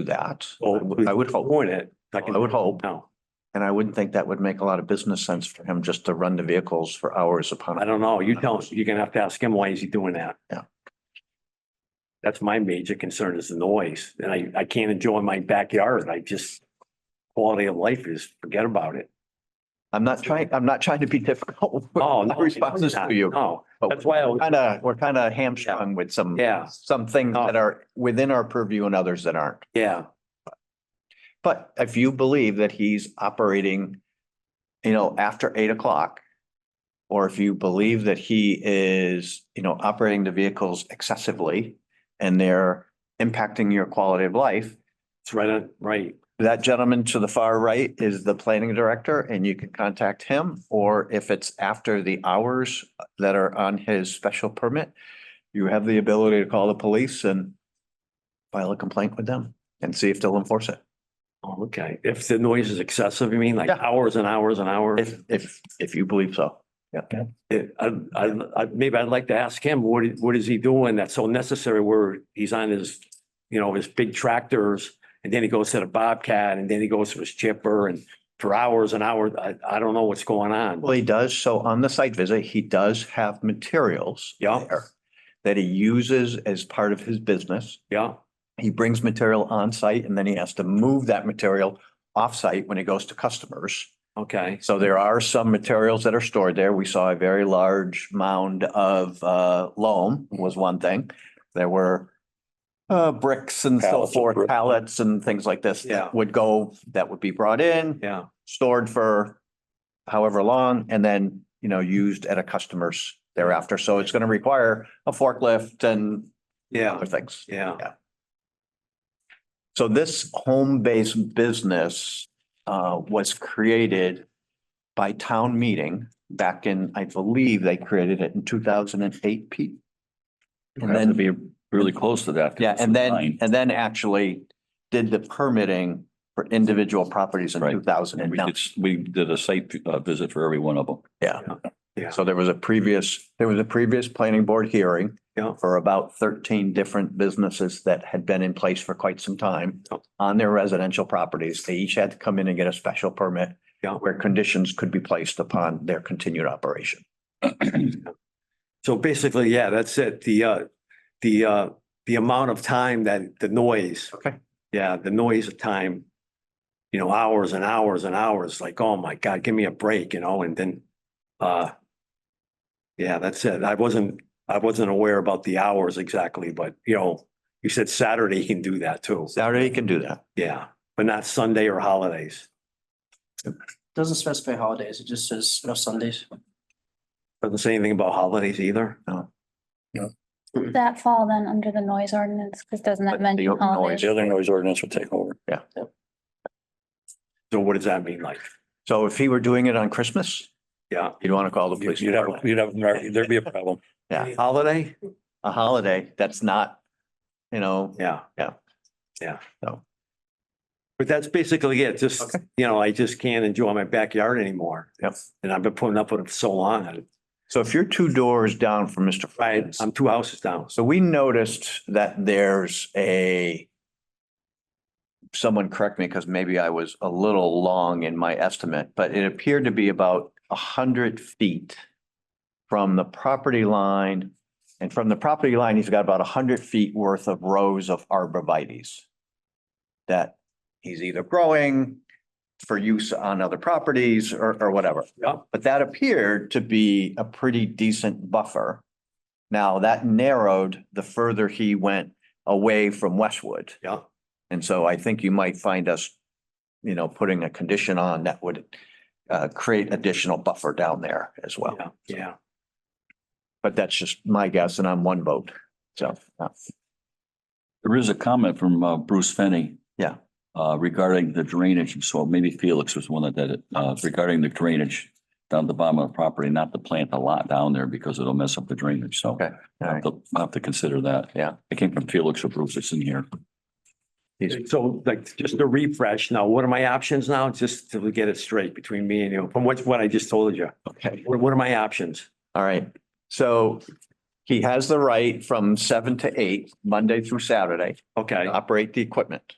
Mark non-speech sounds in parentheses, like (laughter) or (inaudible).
do that. Well, I would- I would hope, Point it. I would hope, No, and I wouldn't think that would make a lot of business sense for him just to run the vehicles for hours upon. I don't know. You tell us, you're gonna have to ask him, why is he doing that? Yeah. That's my major concern is the noise. And I, I can't enjoy my backyard. I just, quality of life is, forget about it. I'm not trying, I'm not trying to be (laughs) difficult. with Oh, my no. Responses to you. No, but that's why I was- Kind of, we're kind of hamstrung with some. Yeah. Some things No. that are within our purview and others that aren't. yeah, But if you believe that he's operating, you know, after eight o'clock. Or if you believe that he is, you know, operating the vehicles excessively and they're impacting your quality of life. it's right, on right. That gentleman to the far right is the planning director and you can contact him. Or if it's after the hours that are on his special permit, you have the ability to call the police and file a complaint with them and see if they'll enforce it. Oh, Okay, if the noise is excessive, you mean like Yeah. hours and hours and hours? If, if, if you believe so. Yeah. It- I, I, I, maybe I'd like to ask him, what, i- what is he doing that's so necessary where he's on his, you know, his big tractors? And then he goes to the Bobcat and then he goes to his chipper and for hours and hours, I, I don't know what's going on. Well, he does. So on the site visit, he does have materials. Yeah. there That he uses as part of his business. Yeah, He brings material on site and then he has to move that material off site when it goes to customers. okay, So there are some materials that are stored there. We saw a very large mound of uh loam was one thing. There were uh bricks and so Pallets of forth, brick. pallets and things like this. that Yeah. Would go, that would be brought in yeah, stored for however long and then, you know, used at a customer's thereafter. So it's going to require a forklift and yeah, other things. yeah, So this home-based business uh, was created by town meeting back in, I believe they created it in two thousand and eight, Pete. And Have to then be really close to that. 'cause Yeah, it's and then, nine. and then actually did the permitting for individual properties in Right. two thousand and We nine. did, we did a site uh, visit for every one of them. yeah, So there was a previous, there was a previous planning board hearing. Yeah. For about thirteen different businesses that had been in place for quite some time Oh. on their residential properties. They each had to come in and get a special permit. Yeah. Where conditions could be placed upon their continued operation. So basically, yeah, that's it. The, uh, the, uh, the amount of time that the noise. Okay. Yeah, the noise of time, you know, hours and hours and hours, like, oh my God, give me a break, you know, and then, uh, yeah, that's it. I wasn't, I wasn't aware about the hours exactly, but you know, you said Saturday you can do that too. Saturday you can do that. Yeah, but not Sunday or holidays. Doesn't specify holidays, it just says no Sundays. Doesn't say anything about holidays either. that fall then under the noise ordinance? Because doesn't But that the mention noise- holidays? The other noise ordinance will take over. So what does that mean like? So if he were doing it on Christmas, Yeah, you'd want to call the police. You'd have, you'd have, there'd be a problem. Yeah. holiday? A holiday, that's not, you know, Yeah. Yeah. Yeah. So. But that's basically it. Just, you know, I just can't enjoy my backyard anymore. Yep. And I've been putting up with it for so long. I- so if you're two doors down from Mr. I, Fry's. I'm two houses down. So we noticed that there's a, someone correct me because maybe I was a little long in my estimate, but it appeared to be about a hundred feet from the property line. And from the property line, he's got about a hundred feet worth of rows of arborvitae's that he's either growing for use on other properties or, or whatever. Yep. But that appeared to be a pretty decent buffer. Now, that narrowed the further he went away from Westwood. Yeah. And so I think you might find us, you know, putting a condition on that would uh, create additional buffer down there as well. Yeah, Yeah. But that's just my guess and I'm one vote. So, uh, There is a comment from uh, Bruce Fenny. Yeah. Uh, regarding the drainage, so maybe Felix was the one that did it, uh, regarding the drainage down the bottom of the property, not to plant a lot down there because it'll mess up the drainage, so. Okay, all right. I'll have to consider that. Yeah. It came from Felix or Bruce, it's in here. So like, just to refresh now, what are my options now? Just to get it straight between me and you, from what, what I just told you. okay. What, what are my options? All right. So he has the right from seven to eight, Monday through Saturday, Okay, to operate the equipment.